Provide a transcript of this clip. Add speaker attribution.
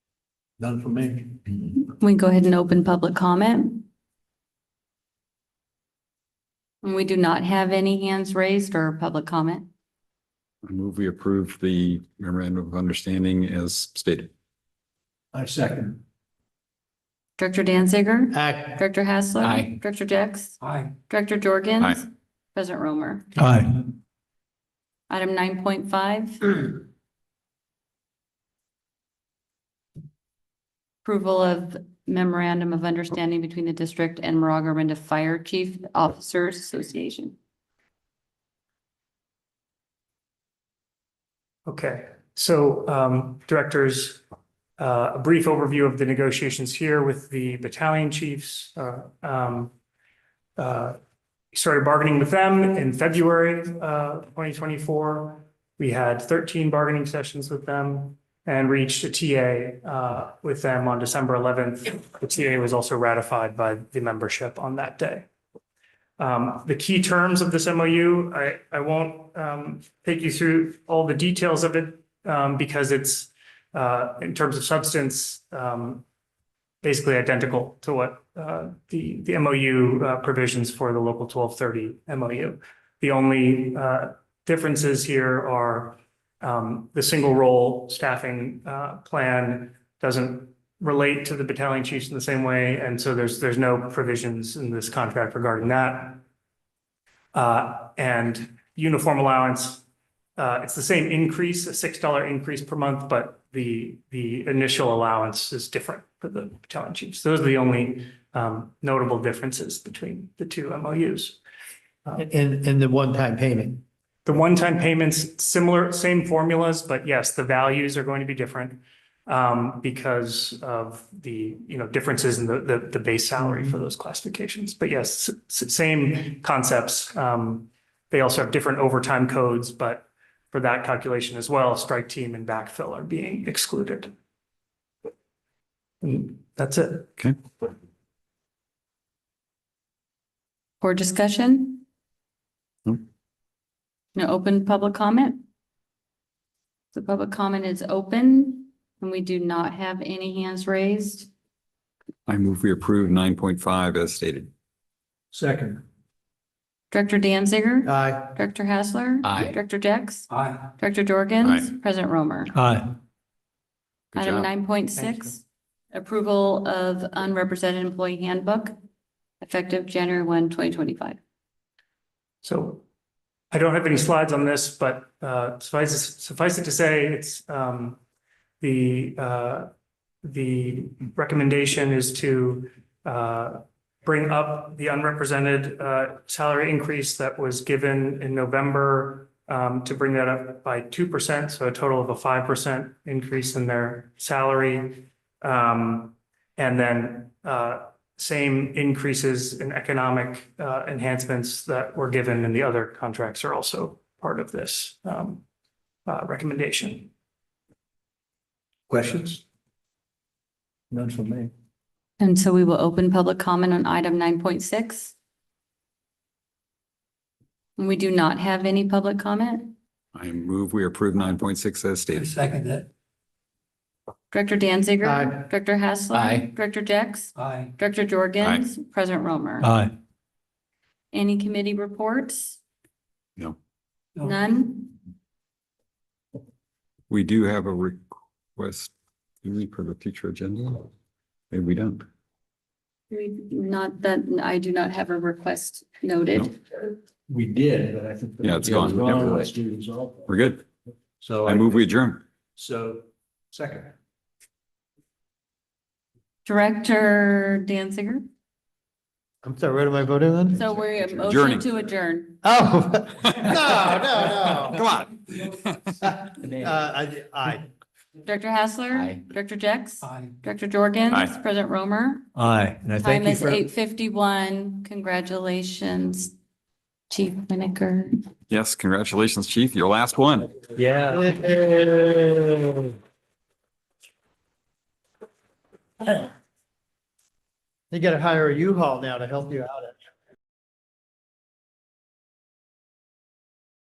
Speaker 1: None for me.
Speaker 2: We go ahead and open public comment. And we do not have any hands raised or public comment.
Speaker 3: I move we approve the memorandum of understanding as stated.
Speaker 1: I second.
Speaker 2: Director Danziger?
Speaker 1: Aye.
Speaker 2: Director Hassler?
Speaker 3: Aye.
Speaker 2: Director Jex?
Speaker 1: Aye.
Speaker 2: Director Jorgens?
Speaker 3: Aye.
Speaker 2: President Romer?
Speaker 1: Aye.
Speaker 2: Item nine point five, approval of memorandum of understanding between the district and Maraga Arinda Fire Chief Officers Association.
Speaker 4: Okay, so um, directors, uh, a brief overview of the negotiations here with the battalion chiefs. uh, um, uh, Started bargaining with them in February uh, 2024. We had 13 bargaining sessions with them and reached a TA uh, with them on December 11th. The TA was also ratified by the membership on that day. Um, The key terms of this MOU, I I won't um, take you through all the details of it um, because it's uh, in terms of substance um, basically identical to what uh, the the MOU uh, provisions for the local 1230 MOU. The only uh, differences here are um, the single role staffing uh, plan doesn't relate to the battalion chiefs in the same way, and so there's there's no provisions in this contract regarding that. Uh, and uniform allowance. Uh, it's the same increase, a six dollar increase per month, but the, the initial allowance is different for the battalion chiefs. Those are the only, um, notable differences between the two MOUs.
Speaker 1: And, and the one-time payment.
Speaker 4: Uh, The one-time payments, similar, same formulas, but yes, the values are going to be different. Um, because of the, you know, differences in the, the, the base salary
Speaker 1: Mm-hmm.
Speaker 4: for those classifications. But yes, s- s- same concepts. Um, they also have different overtime codes, but for that calculation as well, strike team and backfill are being excluded. And that's it.
Speaker 2: For discussion?
Speaker 3: No.
Speaker 2: No open public comment? The public comment is open and we do not have any hands raised.
Speaker 3: I move we approve nine point five as stated.
Speaker 1: Second.
Speaker 2: Director Danziger?
Speaker 1: Aye.
Speaker 2: Director Hassler?
Speaker 3: Uh, Aye.
Speaker 2: Director Jex?
Speaker 1: Aye.
Speaker 2: Director Jorgens? President Romer?
Speaker 1: Aye.
Speaker 3: Good
Speaker 2: Item
Speaker 3: job.
Speaker 2: nine point six, approval of unrepresented employee handbook effective January 1, 2025.
Speaker 4: So I don't have any slides on this, but uh, suffice it- suffice it to say, it's um, the uh, the recommendation is to uh, bring up the unrepresented uh, salary increase that was given in November um, to bring that up by two percent, so a total of a five percent increase in their salary. Um, and then uh, same increases in economic uh, enhancements that were given in the other contracts are also part of this um, uh, recommendation.
Speaker 1: Questions? None for me.
Speaker 2: And so we will open public comment on item nine point six. We do not have any public comment.
Speaker 3: I move we approve nine point six as stated.
Speaker 1: second that.
Speaker 2: Director Danziger.
Speaker 1: Aye.
Speaker 2: Director Hassler.
Speaker 3: Aye.
Speaker 2: Director Jex.
Speaker 1: Aye.
Speaker 2: Director Jorgens. President Romer.
Speaker 1: Aye.
Speaker 2: Any committee reports?
Speaker 3: No.
Speaker 1: No.
Speaker 2: None?
Speaker 3: We do have a request do we, for the future agenda. Maybe we don't.
Speaker 2: Not that, I do not have a request noted.
Speaker 1: We did, but I think.
Speaker 3: Yeah, it's gone.
Speaker 1: It's
Speaker 3: Never
Speaker 1: gone.
Speaker 3: mind.
Speaker 1: Let's do this all.
Speaker 3: We're good.
Speaker 1: So.
Speaker 3: I move we adjourn.
Speaker 1: So, second.
Speaker 2: Director Danziger.
Speaker 5: I'm sorry, what am I voting on?
Speaker 2: So we're a motion
Speaker 3: Adjourning.
Speaker 2: to adjourn.
Speaker 5: Oh, no, no,
Speaker 3: Come on.
Speaker 5: no. Uh, I, I.
Speaker 2: Director Hassler.
Speaker 5: Aye.
Speaker 2: Director Jex.
Speaker 1: Aye.
Speaker 2: Director Jorgens.
Speaker 3: Aye.
Speaker 2: President Romer.
Speaker 5: Aye, and I
Speaker 2: Time is eight fifty-one. Congratulations, Chief Winiker.
Speaker 3: Yes, congratulations, chief. Your last one.
Speaker 5: Yeah. You gotta hire a U-Haul now to help you out,